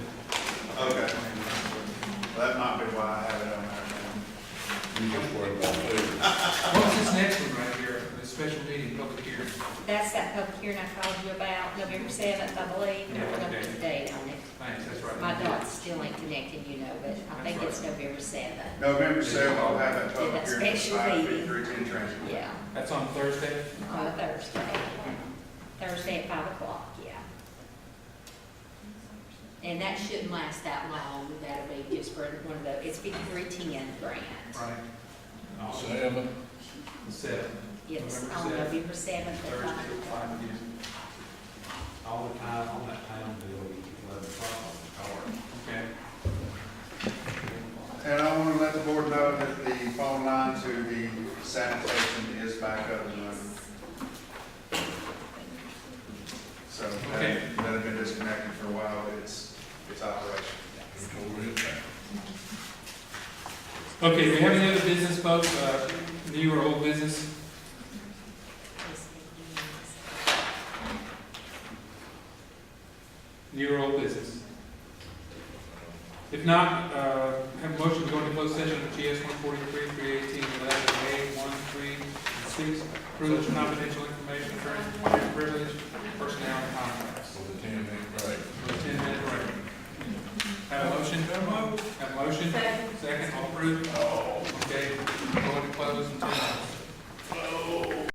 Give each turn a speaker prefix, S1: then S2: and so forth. S1: that's that public hearing I called you about, November seventh, I believe, but I don't put the date on it.
S2: Thanks, that's right.
S1: My dot's still ain't connected, you know, but I think it's November seventh,
S3: November seventh, I'll have that public
S1: That
S3: hearing at
S1: special
S3: five
S1: meeting.
S3: fifty-three transfer.
S1: yeah,
S2: That's on Thursday?
S1: on a Thursday. Thursday at five o'clock, yeah. And that shouldn't last that long, that'll be just for one of the, it's fifty-three ten grant.
S2: Right.
S4: Seven,
S2: Seven.
S1: It's
S2: November
S1: on
S2: 7th.
S1: November seventh at
S2: Thursday,
S1: five
S2: at
S1: o'clock.
S2: five again.
S5: All the time on that town bill, we can let it fall on
S2: Okay.
S3: And I want to let the board know that the phone line to the sanitation is back up and running. So that
S2: Okay.
S3: that had been disconnected for a while, but it's, it's operational.
S2: Okay, do we have any other business folks, uh, new or old business? New or old business? If not, uh, have a motion to go into closed session of GS one forty-three, three eighteen, eleven, A, one, three, and six. Privilege, confidential information, attorney privilege, personnel and contracts.
S4: for the ten minute break.
S2: For a ten minute break. Have a motion? Have a motion? Second, all approved? Okay, go into closed until.